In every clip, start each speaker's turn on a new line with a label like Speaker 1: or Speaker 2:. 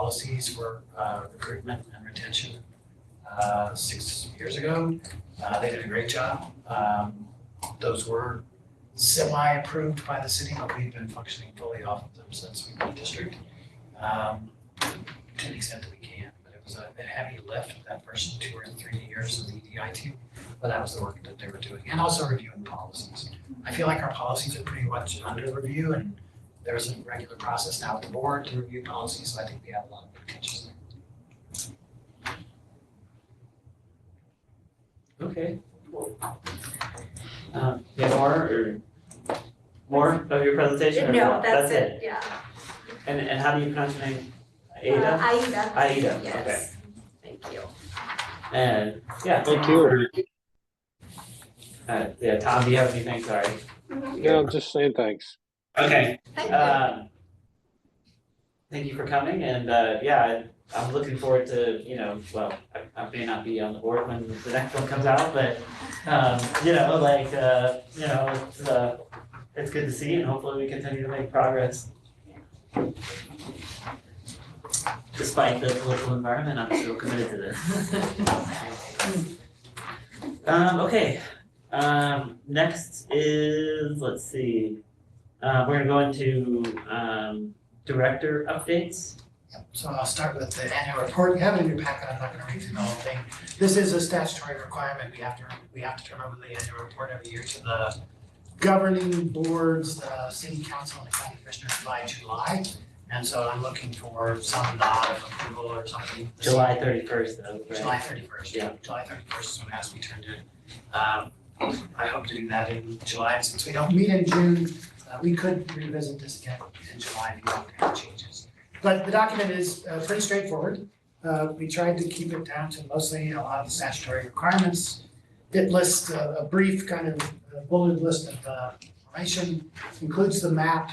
Speaker 1: policies for uh, recruitment and retention uh, six years ago. Uh, They did a great job. Um, Those were semi-approved by the city, but we've been functioning fully off of them since we've been district. um, To the extent that we can, but it was a a heavy lift, that first two or three years of the EDI team, but that was the work that they were doing, and also reviewing policies. I feel like our policies are pretty much under review and there's a regular process now with the board to review policies, so I think we have a lot of potential
Speaker 2: Okay. Um, you have more or more of your presentation or
Speaker 3: No, that's
Speaker 2: it?
Speaker 3: it, yeah.
Speaker 2: And and how do you pronounce your name?
Speaker 3: Uh,
Speaker 2: Ada?
Speaker 3: Aida.
Speaker 2: Aida,
Speaker 3: Yes, thank you.
Speaker 2: And yeah,
Speaker 4: Thank you.
Speaker 2: uh, yeah, Tom, do you have anything? Sorry.
Speaker 4: Yeah, I'm just saying thanks.
Speaker 2: Okay.
Speaker 3: Thank you.
Speaker 2: Um, thank you for coming and uh, yeah, I- I'm looking forward to, you know, well, I- I may not be on the board when the next one comes out, but um, you know, like, uh, you know, it's uh, it's good to see you and hopefully we continue to make progress. Despite the political environment, I'm still committed to this. Um, okay, um, next is, let's see, uh, we're gonna go into, um, director updates.
Speaker 1: So I'll start with the annual report. You have it in your packet. I'm not gonna read through the whole thing. This is a statutory requirement. We have to, we have to turn over the annual report every year to the governing boards, the city council and the county commissioners by July. And so I'm looking for some nod of approval or something.
Speaker 2: July thirty-first though,
Speaker 1: July
Speaker 2: right?
Speaker 1: thirty-first.
Speaker 2: Yeah.
Speaker 1: July thirty-first is when it has to be turned in. Um, I hope to do that in July, and since we don't meet in June, uh, we could revisit this again in July if you want to have changes. But the document is, uh, pretty straightforward. Uh, we tried to keep it down to mostly a lot of the statutory requirements. It lists a, a brief kind of uh, bulleted list of, uh, information, includes the map,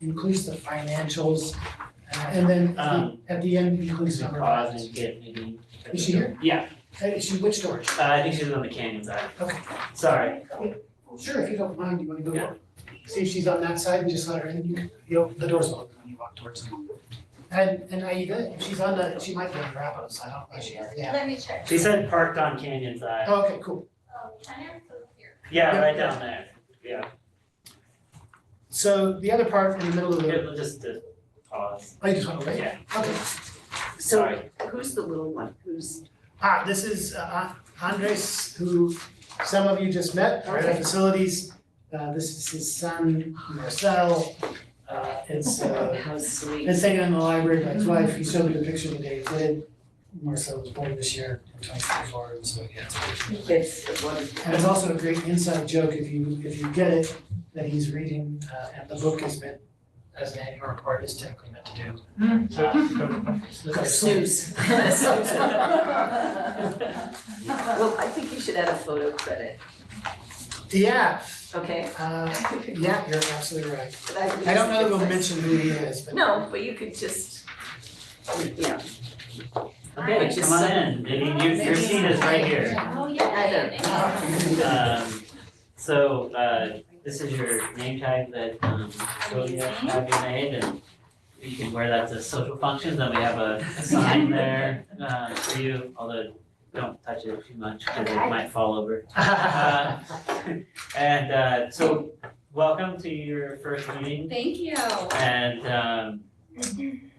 Speaker 1: includes the financials, uh, and then at the-
Speaker 2: Um,
Speaker 1: at the end includes
Speaker 2: Please
Speaker 1: number.
Speaker 2: pause and get maybe.
Speaker 1: Is she here?
Speaker 2: Yeah,
Speaker 1: Hey, she- which door?
Speaker 2: uh, I think she's on the canyon side.
Speaker 1: Okay.
Speaker 2: Sorry,
Speaker 1: Sure, if you don't mind, you wanna go
Speaker 2: Yeah.
Speaker 1: look? See if she's on that side and just let her in, you, you, know, the door's open when you walk towards her. And, and Aida, if she's on the, she might be on Rapidos, I don't know, if she, yeah.
Speaker 5: Let me check.
Speaker 2: she said parked on canyon side.
Speaker 1: Oh, Okay, cool.
Speaker 5: Um, I am still here.
Speaker 1: Oh.
Speaker 2: Yeah, right down there. Yeah,
Speaker 1: So the other part in the middle of
Speaker 2: Okay,
Speaker 1: the,
Speaker 2: we'll just uh, pause.
Speaker 1: oh, you just wanna wait?
Speaker 2: Yeah,
Speaker 1: Okay.
Speaker 2: sorry.
Speaker 6: So who's the little one? Who's,
Speaker 1: Ah, this is uh, Andres, who some of you just met, our head of facilities. Uh, this is his son, Marcel. Uh, it's, uh,
Speaker 6: how sweet?
Speaker 1: It's taken in the library by his wife, he showed me the picture the day he did. Marcel was born this year in twenty twenty-four, and so yeah. it's-
Speaker 6: It's wonderful.
Speaker 1: And it's also a great inside joke if you, if you get it, that he's reading, uh, and the book is meant, as an annual report is typically meant to do. Uh, look at
Speaker 6: Snooze. Well, I think you should add a photo credit,
Speaker 1: Yeah,
Speaker 6: okay?
Speaker 1: uh,
Speaker 6: But
Speaker 1: yeah, you're absolutely right.
Speaker 6: I think
Speaker 1: I don't know
Speaker 6: it's
Speaker 1: that we'll
Speaker 6: nice.
Speaker 1: mention who he is, but.
Speaker 6: No, but you could just, yeah,
Speaker 2: Okay,
Speaker 6: Which is
Speaker 2: come on in. Maybe you- your seat is right here.
Speaker 5: Oh, yeah.
Speaker 6: I don't
Speaker 2: Um, so, uh, this is your name tag that, um, Sylvia had you made, and you can wear that to social functions, and we have a a sign there, uh, for you, although don't touch it too much, because it might fall over. Uh, And, uh, so, welcome to your first meeting,
Speaker 5: Thank you.
Speaker 2: and, um,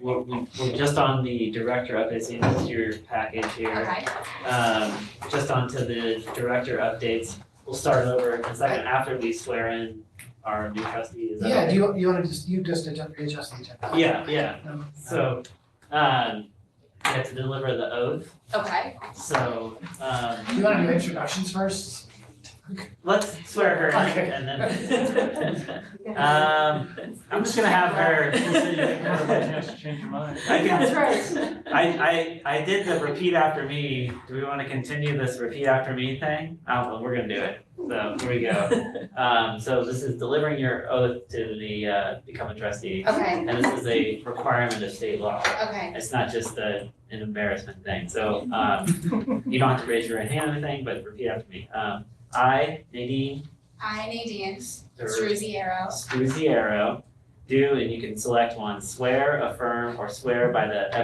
Speaker 2: we're, we're just on the director update, so this is your package here
Speaker 5: Okay.
Speaker 2: um, just onto the director updates. We'll start over in a second after we swear in our new trustee, is that
Speaker 1: Yeah, do
Speaker 2: okay?
Speaker 1: you, you wanna just, you just adjust, adjust the agenda?
Speaker 2: Yeah, yeah,
Speaker 1: Um,
Speaker 2: so, um, we have to deliver the oath,
Speaker 5: Okay.
Speaker 2: so,
Speaker 1: Do
Speaker 2: um,
Speaker 1: you wanna do introductions first?
Speaker 2: let's swear her
Speaker 1: Okay.
Speaker 2: in and then. Um, I'm just gonna have her. I can-
Speaker 6: that's right.
Speaker 2: I, I, I did the repeat after me, do we wanna continue this repeat after me thing? Oh, well, we're gonna do it, so here we go. Um, so this is delivering your oath to the, uh, become a trustee.
Speaker 5: Okay.
Speaker 2: And this is a requirement of state law,
Speaker 5: Okay.
Speaker 2: it's not just a, an embarrassment thing, so, um, you don't have to raise your hand or anything, but repeat after me. Um, I, Nadine
Speaker 5: I, Nadine
Speaker 2: Dur-
Speaker 5: Struziero,
Speaker 2: Struziero, do, and you can select one, swear, affirm, or swear by the